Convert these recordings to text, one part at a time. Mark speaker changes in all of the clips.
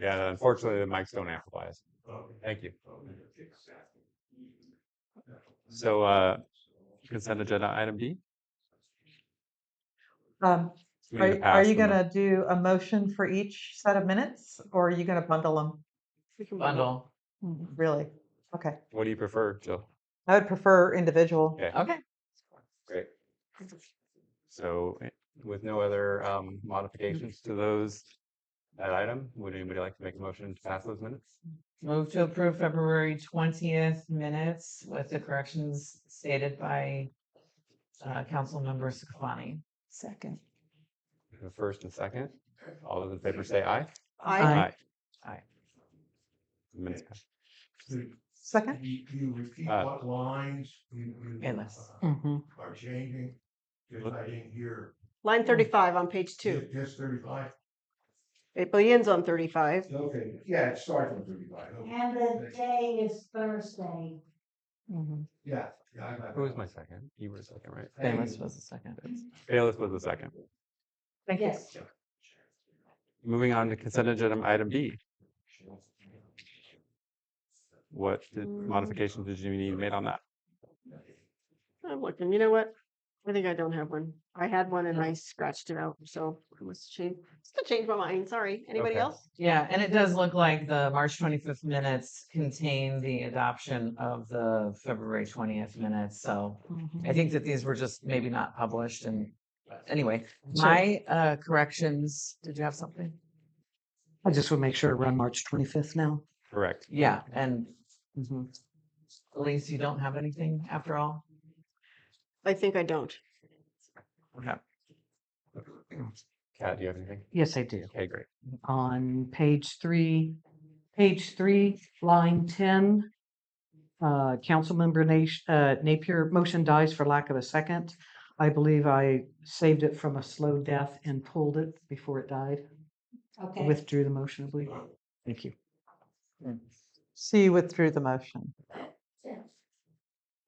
Speaker 1: Yeah, unfortunately, the mics don't amplify us. Thank you. So, uh, consent agenda item D.
Speaker 2: Um,
Speaker 1: We need to
Speaker 2: are, are
Speaker 1: pass
Speaker 2: you
Speaker 1: the mo-
Speaker 2: gonna do a motion for each set of minutes or are you gonna bundle them?
Speaker 3: Bundle.
Speaker 2: Really? Okay.
Speaker 1: What do you prefer, Jill?
Speaker 2: I would prefer individual.
Speaker 1: Okay.
Speaker 3: Okay.
Speaker 1: Great. So eh, with no other um modifications to those. That item, would anybody like to make a motion to pass those minutes?
Speaker 3: Move to approve February twentieth minutes with the corrections stated by uh, Councilmember Saclani.
Speaker 4: Second.
Speaker 1: The First and second,
Speaker 5: Uh,
Speaker 1: all those in favor say aye.
Speaker 3: Aye.
Speaker 1: Aye.
Speaker 3: Aye.
Speaker 1: Minutes pass.
Speaker 2: Second?
Speaker 5: You, you repeat
Speaker 1: Uh,
Speaker 5: what lines you, you.
Speaker 3: Endless.
Speaker 2: Mm.
Speaker 5: uh, Are changing, because I didn't hear.
Speaker 6: Line thirty-five on page two.
Speaker 5: Ju- Just thirty-five?
Speaker 6: It begins on thirty-five.
Speaker 5: Okay, yeah, it starts on thirty-five. okay.
Speaker 7: And the day is Thursday.
Speaker 5: Yeah. yeah, I got
Speaker 1: Who was
Speaker 5: that.
Speaker 1: my second? You were second, right?
Speaker 5: Thank you.
Speaker 3: Bayless was the second.
Speaker 1: Bayless was the second.
Speaker 7: Yes.
Speaker 1: Moving on to consent agenda item B. What did-
Speaker 6: Mm.
Speaker 1: modifications did you need made on that?
Speaker 6: I'm looking, you know what? I think I don't have one. I had one and I scratched it out, so I must change, just change my mind, sorry. Anybody
Speaker 1: Okay.
Speaker 6: else?
Speaker 3: Yeah, and it does look like the March twenty-fifth minutes contain the adoption of the February twentieth minutes, so I think that these were just maybe not published and anyway, my uh, corrections, did you have something?
Speaker 4: I just would make sure we're on March twenty-fifth now.
Speaker 1: Correct.
Speaker 3: Yeah, and Elise, you don't have anything after all?
Speaker 6: I think I don't.
Speaker 1: Kat, do you have anything?
Speaker 4: Yes, I do.
Speaker 1: Okay, great.
Speaker 4: On page three, page three, line ten. Uh, Councilmember Nash, uh, Napier, motion dies for lack of a second. I believe I saved it from a slow death and pulled it before it died. I
Speaker 7: Okay.
Speaker 4: Withdrew the motion, I believe. Thank you.
Speaker 2: So you withdrew the motion.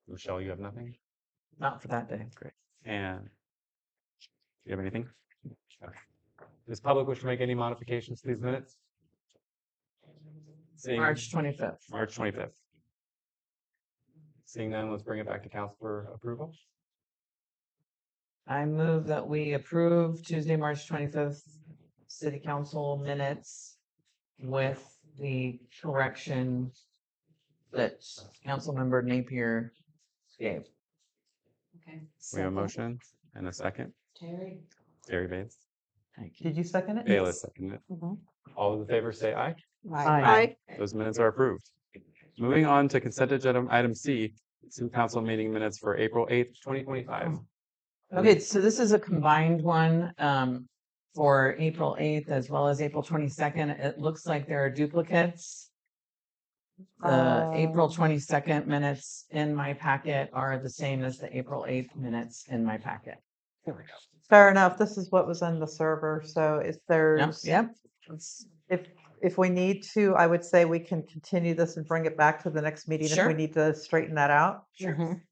Speaker 1: Michelle, you have nothing?
Speaker 3: Not for that day.
Speaker 1: Great. And do you have anything? Okay. Does public wish to make any modifications to these minutes? Seeing
Speaker 3: March twenty-fifth.
Speaker 1: March twenty-fifth. Seeing none, let's bring it back to council for approval.
Speaker 3: I move that we approve Tuesday, March twenty-fifth, city council minutes with the correction that Councilmember Napier gave.
Speaker 1: We have a motion and a second.
Speaker 7: Terry?
Speaker 1: Terry Bates.
Speaker 4: Thank you.
Speaker 2: Did you second it?
Speaker 1: Bayless seconded it.
Speaker 4: Mhm.
Speaker 1: All those in favor say aye.
Speaker 4: Aye.
Speaker 6: I,
Speaker 1: Those minutes are approved. Moving on to consent agenda item C, city council meeting minutes for April eighth, twenty twenty-five.
Speaker 3: Okay, so this is a combined one um for April eighth as well as April twenty-second. It looks like there are duplicates. The April
Speaker 2: Oh.
Speaker 3: twenty-second minutes in my packet are the same as the April eighth minutes in my packet.
Speaker 2: Fair enough. This is what was in the server. So if
Speaker 3: Yep,
Speaker 2: there's,
Speaker 3: Yep. It's-
Speaker 2: if, if we need to, I would say we can continue this and bring it back to the next meeting if we
Speaker 3: Sure.
Speaker 2: need to straighten that out.
Speaker 6: Mm-hmm.
Speaker 3: Sure.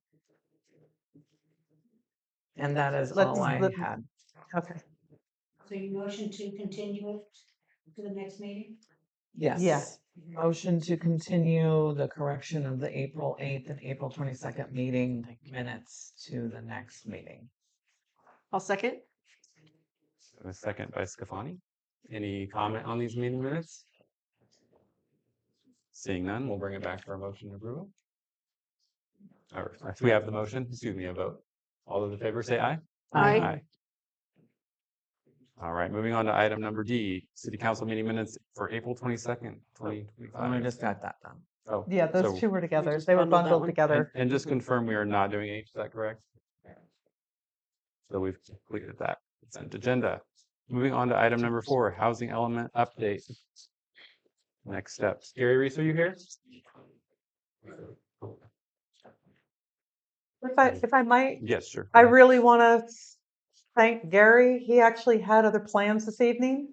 Speaker 3: And that is
Speaker 2: Let's-
Speaker 3: all I
Speaker 2: let-
Speaker 3: had.
Speaker 2: Okay.
Speaker 7: So you motion to continue it to the next meeting?
Speaker 3: Yes.
Speaker 2: Yeah.
Speaker 3: Motion to continue the correction of the April eighth and April twenty-second meeting minutes to the next meeting.
Speaker 6: I'll second.
Speaker 1: A second by Scafani. Any comment on these meeting minutes? Seeing none, we'll bring it back for a motion to approval. Or if we have the motion, excuse me, a vote. All those in favor say aye.
Speaker 6: Aye.
Speaker 1: All right, moving on to item number D, city council meeting minutes for April twenty-second, twenty
Speaker 3: I
Speaker 1: twenty-five. Oh,
Speaker 3: just got that done.
Speaker 2: Yeah, those two were together. They were
Speaker 6: bundled that
Speaker 2: bundled
Speaker 6: one.
Speaker 2: together.
Speaker 1: And just confirm we are not doing H, is that correct? So we've completed that consent agenda. Moving on to item number four, housing element update. Next steps. Gary Reese, are you here?
Speaker 2: If I, if I might,
Speaker 1: Yes, sure.
Speaker 2: I really want to thank Gary. He actually had other plans this evening.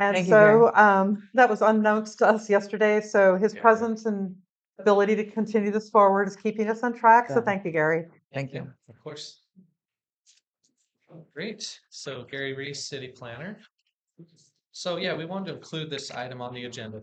Speaker 2: And
Speaker 3: Thank you, Gary.
Speaker 2: so um, that was unknowns to us yesterday. So his
Speaker 1: Yeah.
Speaker 2: presence and ability to continue this forward is keeping us on track. So
Speaker 3: Good.
Speaker 2: thank you, Gary.
Speaker 3: Thank you.
Speaker 8: Of course. Great. So Gary Reese, city planner. So yeah, we wanted to include this item on the agenda